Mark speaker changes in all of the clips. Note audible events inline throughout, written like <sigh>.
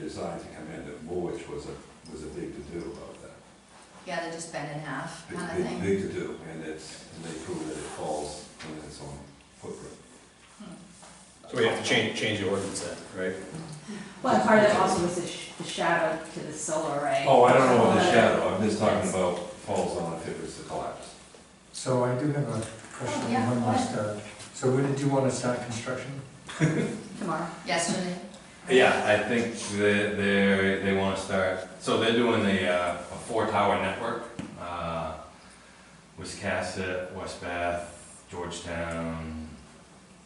Speaker 1: designed to come in, the mulch was a, was a big to-do about that.
Speaker 2: Yeah, they just bend in half,
Speaker 1: It's
Speaker 2: kind
Speaker 1: a
Speaker 2: of
Speaker 1: big,
Speaker 2: thing.
Speaker 1: big to-do, and it's, and they prove that it falls in its own footprint.
Speaker 3: So we have to change, change the ordinance then, right?
Speaker 4: Well, and part of it also was the sh- the shadow to the solar array.
Speaker 1: Oh, I don't know about the
Speaker 4: Uh,
Speaker 1: shadow, I'm just talking about falls on if it was to collapse.
Speaker 5: So I do have a
Speaker 2: Oh,
Speaker 5: question,
Speaker 2: yeah,
Speaker 5: one
Speaker 2: go ahead.
Speaker 5: last, uh, so when did you want to start construction?
Speaker 4: Tomorrow.
Speaker 2: Yesterday,
Speaker 3: Yeah, I think that they're, they wanna start, so they're doing the, uh, a four tower network, uh, Wiscasset, West Bath, Georgetown,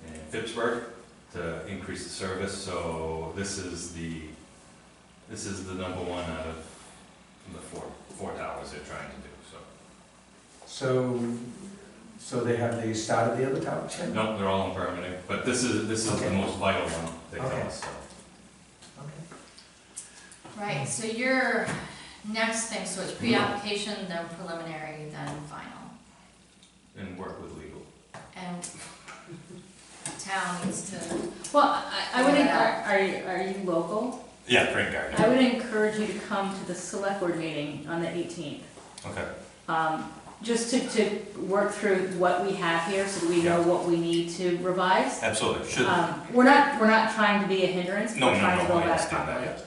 Speaker 3: and Pittsburgh to increase the service, so this is the, this is the number one out of the four, four towers they're trying to do, so.
Speaker 5: So, so they have, they started the other towers yet?
Speaker 3: Nope, they're all in permitting, but this is, this is the
Speaker 5: Okay.
Speaker 3: most vital one, they
Speaker 5: Okay.
Speaker 3: tell us, so.
Speaker 5: Okay.
Speaker 2: right, so your next thing, so it's pre-application, then preliminary, then final.
Speaker 3: And work with legal.
Speaker 2: And town needs to,
Speaker 4: Well, I, I would, encour- are you, are you local?
Speaker 3: Yeah, Green Garden.
Speaker 4: I would encourage you to come to the select board meeting on the eighteenth.
Speaker 3: Okay.
Speaker 4: Um, just to, to work through what we have here, so that we know what we need to revise.
Speaker 3: Absolutely, should, no,
Speaker 4: Um, we're not, we're not trying to be a hindrance,
Speaker 3: no,
Speaker 4: we're
Speaker 3: no,
Speaker 4: trying to go
Speaker 3: I
Speaker 4: about it
Speaker 3: understand that,
Speaker 4: properly.
Speaker 3: yes.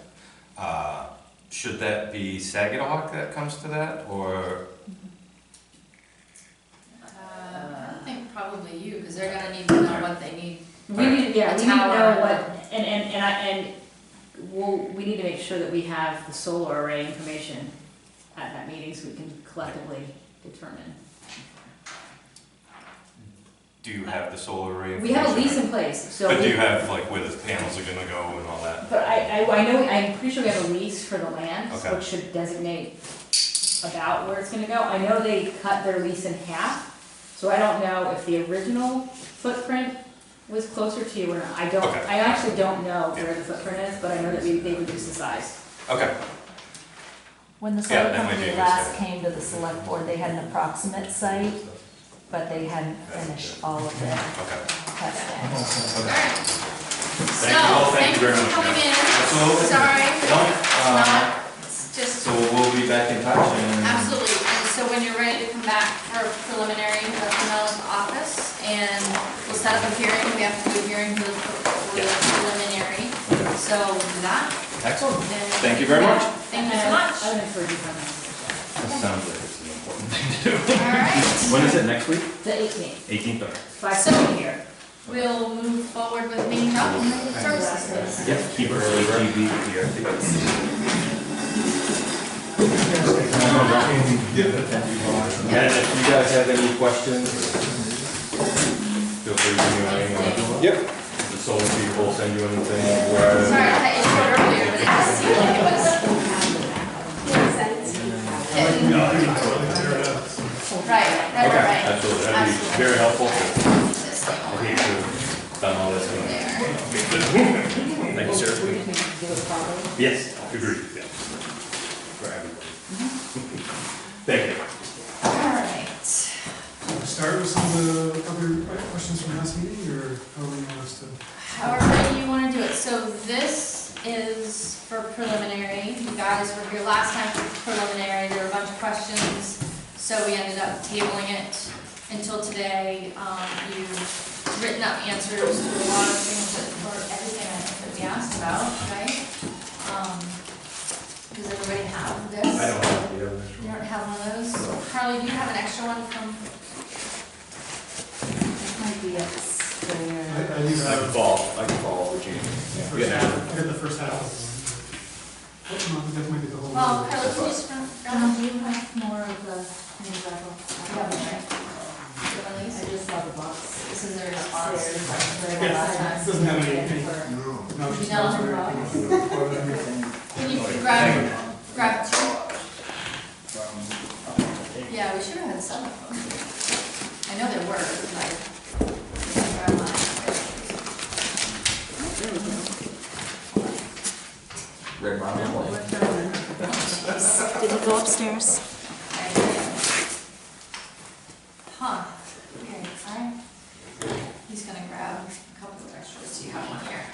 Speaker 3: Uh, Should that be Sagittahawk that comes to that, or,
Speaker 2: uh, I think probably you, because they're gonna need to know what they need.
Speaker 4: We need,
Speaker 2: A
Speaker 4: yeah, we need to know
Speaker 2: tower.
Speaker 4: what, and, and, and I, and we'll, we need to make sure that we have the solar array information at that meeting so we can collectively determine.
Speaker 3: do you have the solar array?
Speaker 4: We have a lease
Speaker 3: information?
Speaker 4: in place, so.
Speaker 3: But do
Speaker 4: we-
Speaker 3: you have, like, where the panels are gonna go and all that?
Speaker 4: But I, I, I know, I'm pretty sure we have a lease for the land,
Speaker 3: Okay.
Speaker 4: which should designate about where it's gonna go. I know they cut their lease in half, so I don't know if the original footprint was closer to you or not. I don't,
Speaker 3: Okay.
Speaker 4: I actually don't know where the footprint is, but I know that we, they reduced the size.
Speaker 3: Okay,
Speaker 6: When the
Speaker 3: Yeah,
Speaker 6: solar
Speaker 3: that might be
Speaker 6: company
Speaker 3: a good
Speaker 6: last
Speaker 3: start.
Speaker 6: came to the select board, they had an approximate site, but they hadn't finished all of their
Speaker 3: okay.
Speaker 6: testing.
Speaker 2: All right.
Speaker 3: you all,
Speaker 2: So,
Speaker 3: thank
Speaker 2: thank
Speaker 3: you
Speaker 2: you
Speaker 3: very
Speaker 2: for
Speaker 3: much,
Speaker 2: coming in.
Speaker 3: Absolutely.
Speaker 2: Sorry,
Speaker 3: No,
Speaker 2: it's
Speaker 3: uh,
Speaker 2: not, it's just,
Speaker 3: So we'll be back in touch and.
Speaker 2: absolutely. And so when you're ready to come back for preliminary, let me know at the office, and we'll set up a hearing, we have to do a hearing for the for the
Speaker 3: Yeah.
Speaker 2: preliminary. So we'll do that,
Speaker 3: Excellent.
Speaker 2: and.
Speaker 3: Thank you very much.
Speaker 2: Thank you so
Speaker 4: I
Speaker 2: much.
Speaker 4: would encourage you to come in.
Speaker 3: That sounds like it's an important thing to do.
Speaker 2: All right.
Speaker 3: When is it, next week?
Speaker 4: The eighteenth,
Speaker 3: Eighteenth,
Speaker 4: five seven here.
Speaker 2: We'll move forward with main document services.
Speaker 3: Yes, keep it early, TV here. And if you guys have any questions, feel free to give me my email. Yep. The solar people will send you anything, where.
Speaker 2: Sorry, I cut you short earlier, but it just seemed like it was,
Speaker 3: No, I-
Speaker 2: right, right, right,
Speaker 3: Okay,
Speaker 2: right.
Speaker 3: absolutely, that'd be very helpful.
Speaker 2: This thing
Speaker 3: I
Speaker 2: over
Speaker 3: hate to have done all this. and-
Speaker 2: there.
Speaker 3: Thank you, sir. Yes, agreed, yeah. For everybody. <laughs> Thank you.
Speaker 2: Alright,
Speaker 7: Start with some of the other questions from last meeting, or how do we want us to?
Speaker 2: however you wanna do it, so this is for preliminary, you guys were here last time for preliminary, there were a bunch of questions, so we ended up tabling it until today, um, you've written up answers to a lot of things that, or everything I think that we asked about, right? Um, does everybody have this?
Speaker 3: I don't have the other.
Speaker 2: You don't have one of those, Carly, do you have an extra one from,
Speaker 6: Might be upstairs.
Speaker 7: I, I leave
Speaker 3: I can
Speaker 7: out
Speaker 3: follow, I can follow the
Speaker 7: the
Speaker 3: gene.
Speaker 7: first half, I got the first half of the one. That might be the whole.
Speaker 2: well,
Speaker 7: one.
Speaker 2: Carly, can you just run,
Speaker 6: Um,
Speaker 2: run
Speaker 4: Uh-huh.
Speaker 6: do you have more of the new level?
Speaker 2: Yeah, right. them, Elise?
Speaker 6: I just saw the box.
Speaker 2: This is their
Speaker 6: Upstairs,
Speaker 2: response.
Speaker 6: like,
Speaker 7: Yeah,
Speaker 6: where last time.
Speaker 7: doesn't have any- any-
Speaker 6: For-
Speaker 7: No, it's just
Speaker 2: No.
Speaker 7: not very-
Speaker 2: Can <laughs> you grab, grab two?
Speaker 7: Um,
Speaker 2: Yeah, we should have had some of them. I know there were, but
Speaker 6: Did you go upstairs?